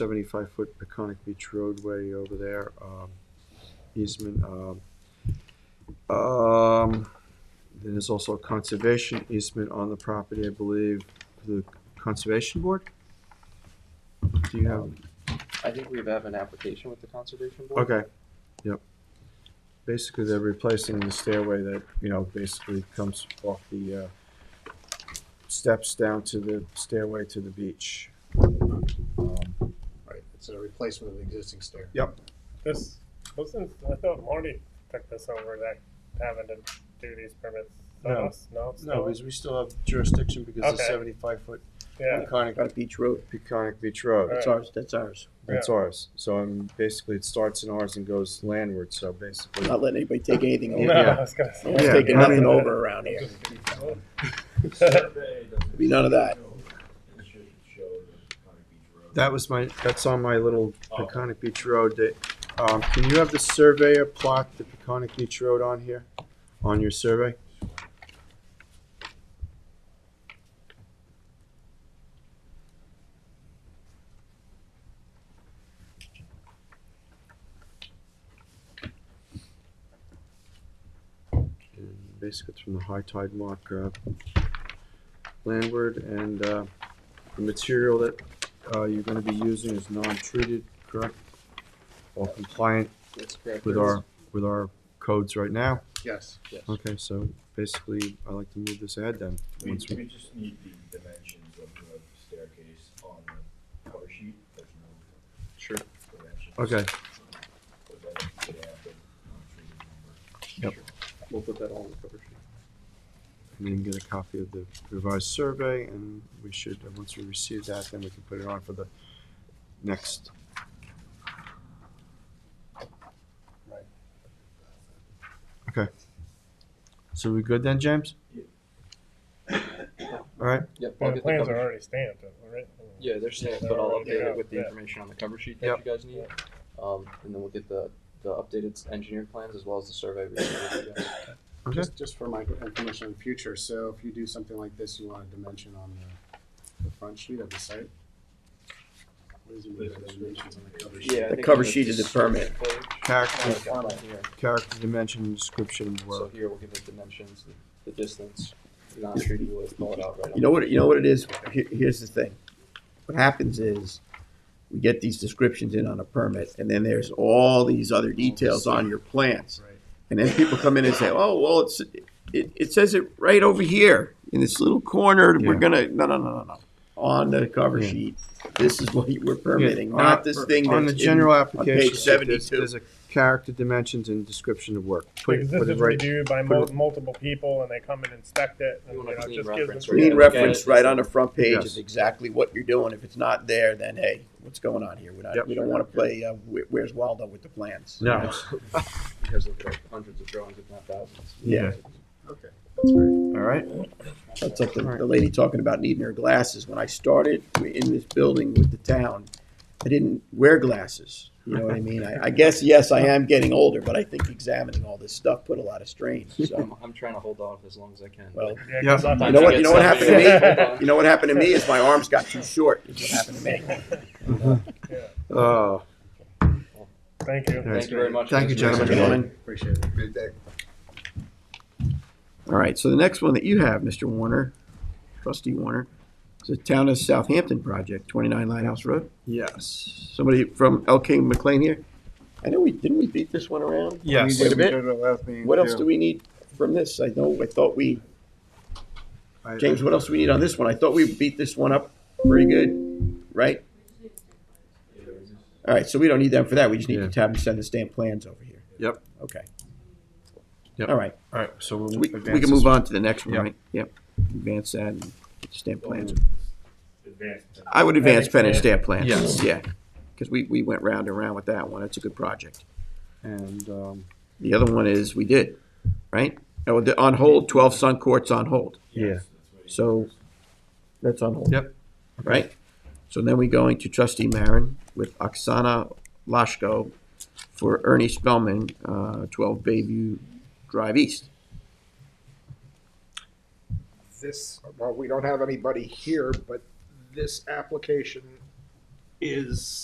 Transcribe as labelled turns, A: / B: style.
A: seventy-five foot Peconic Beach roadway over there, um, easement, um. Um, then there's also a conservation easement on the property, I believe, for the conservation board? Do you have?
B: I think we have an application with the conservation
C: Uh,
B: board.
A: Okay, yep. Basically, they're replacing the stairway that, you know, basically comes off the, uh, steps down to the stairway to the beach. Um,
D: Right, it's a replacement of the existing stair.
A: Yep,
E: This wasn't. I thought Marty took this over that having to do these permits.
A: No.
E: us? no, it's
C: No,
E: not?
C: because we still have jurisdiction because it's
E: Okay.
C: seventy-five foot
E: yeah.
C: iconic.
F: Got Beach Road,
A: Peconic Beach Road,
F: that's
E: Right.
F: ours, that's ours.
A: that's ours. So, um, basically, it starts in ours and goes landward, so basically.
F: Not letting anybody take anything
E: No,
F: over.
A: Yeah.
E: I was gonna say.
F: No one's
A: Yeah,
F: taking
A: I
F: nothing
A: mean- uh,
F: over around here. Be none of that.
A: That was my, that's on my little Peconic Beach Road. that- Um, can you have the surveyor plot the Peconic Beach Road on here, on your survey? And Basically, it's from the high tide mark, uh, landward, and, uh, the material that uh, you're gonna be using is non-treated, correct? Or compliant
B: That's correct.
A: with our, with our codes right now?
D: Yes, yes.
A: Okay, so basically, I like to move this ahead then.
G: We,
A: once we-
G: we just need the dimensions of the staircase on the cover sheet, there's no
B: Sure.
G: dimensions.
A: Okay,
G: So then we could add the non-treated number.
B: We'll put that all on the cover sheet.
A: and then get a copy of the revised survey, and we should, uh, once we receive that, then we can put it on for the next. Okay. So we good then, James? All right,
B: Yep. I'll
E: Well, the
B: get
E: plans
B: cover
E: are
B: sheet.
E: already stamped, right?
B: Yeah, they're stamped,
E: They're
B: but I'll
E: already
B: update it
E: out,
B: with the
E: yeah.
B: information on the cover sheet that
A: Yep.
B: you guys need. Um, and then we'll get the, the updated s- engineer plans as well as the survey. we can do.
A: Okay.
D: Just, just for my information in the future, so if you do something like this, you want a dimension on the, the front sheet of the site? What is it, the dimensions on the cover sheet?
B: Yeah, I
F: The
B: think
F: cover
B: on
F: sheet is the permit.
A: character,
B: It's on here.
A: character, dimension, description, and
B: So
A: word.
B: here we'll give the dimensions, the- the distance, non-treated wood, pull it out right on.
F: You know what, you know what it is? Here, here's the thing. What happens is, we get these descriptions in on a permit, and then there's all these other details on your plans.
D: Right.
F: And then people come in and say, oh, well, it's, it, it says it right over here, in this little corner, we're
A: Yeah.
F: gonna, no, no, no, no, no. On the cover
A: Yeah.
F: sheet, this is what we're permitting,
A: Yeah,
F: not
A: uh,
F: this thing that's.
A: On the
F: in-
A: general application,
F: page
A: sheet, there's,
F: 72.
A: there's a character dimensions and description of work. Put
E: Because
A: it,
E: this
A: put it
E: is
A: right,
E: reviewed by
A: put
E: mul-
A: it-
E: multiple people, and they come and inspect it, and
B: You
E: you
B: want
E: know,
B: a clean
E: it just
B: reference,
E: gives
B: right?
E: them.
B: Yeah,
F: Clean
B: look at
F: reference
B: it.
F: right on the front page
A: Yes.
F: is exactly what you're doing. If it's not there, then hey, what's going on here? We're not,
A: Yep.
F: we don't wanna play, uh, Where- Where's Waldo with the plans? you
A: no,
F: know?
B: You guys look at hundreds of drawings, if not thousands.
F: Yeah.
D: Okay.
A: all right?
F: That's like the, the lady talking about needing her glasses. When I started in this building with the town, I didn't wear glasses. You know what I mean? I, I guess, yes, I am getting older, but I think examining all this stuff put a lot of strain, so.
B: I'm, I'm trying to hold off as long as I can.
F: Well,
E: Yeah,
A: Yeah.
E: 'cause
F: you
E: sometimes
F: know
E: you
F: what,
E: get
F: you know what happened to
E: somebody-
F: me? You know what happened to me is my arms got too short, is what happened to me.
A: Uh,
F: Oh.
E: Thank you.
A: Thank
B: Thank you very much.
A: Thank you,
B: Mr. Mayor.
A: gentlemen.
D: Appreciate it.
G: Good day.
F: All right, so the next one that you have, Mr. Warner, trustee Warner, is the Town of Southampton project, 29 Lighthouse Road.
A: yes,
F: Somebody from LK McLean here? I know we, didn't we beat this one around?
A: yes.
F: Wait a minute. What else do
D: do
F: we need from this? I know, I thought we,
A: I-
F: James, what else do we need on this one? I thought we beat this one up pretty good, right? All right, so we don't need them for that. We just need
A: Yeah.
F: to have them send the stamped plans over here.
A: Yep.
F: Okay.
A: Yep.
F: All right,
A: All right, so we'll
F: we, we
A: advance
F: can
A: this.
F: move on to the next one,
A: Yep.
F: right? Yep, advance that and stamp plans.
G: Advanced.
F: I would Um, advance pen and
E: plan.
F: stamp plans.
A: Yes.
F: Yeah, because we, we went round and round with that one. That's a good project.
A: And, um,
F: The other one is, we did, right? Oh, the- on hold, twelve Sun Court's on hold.
A: yeah,
F: So that's on hold.
A: Yep.
F: Right? So then we going to trustee Marin with Oksana Lashko for Ernie Spellman, uh, twelve Bayview Drive East.
H: this, well, we don't have anybody here, but this application is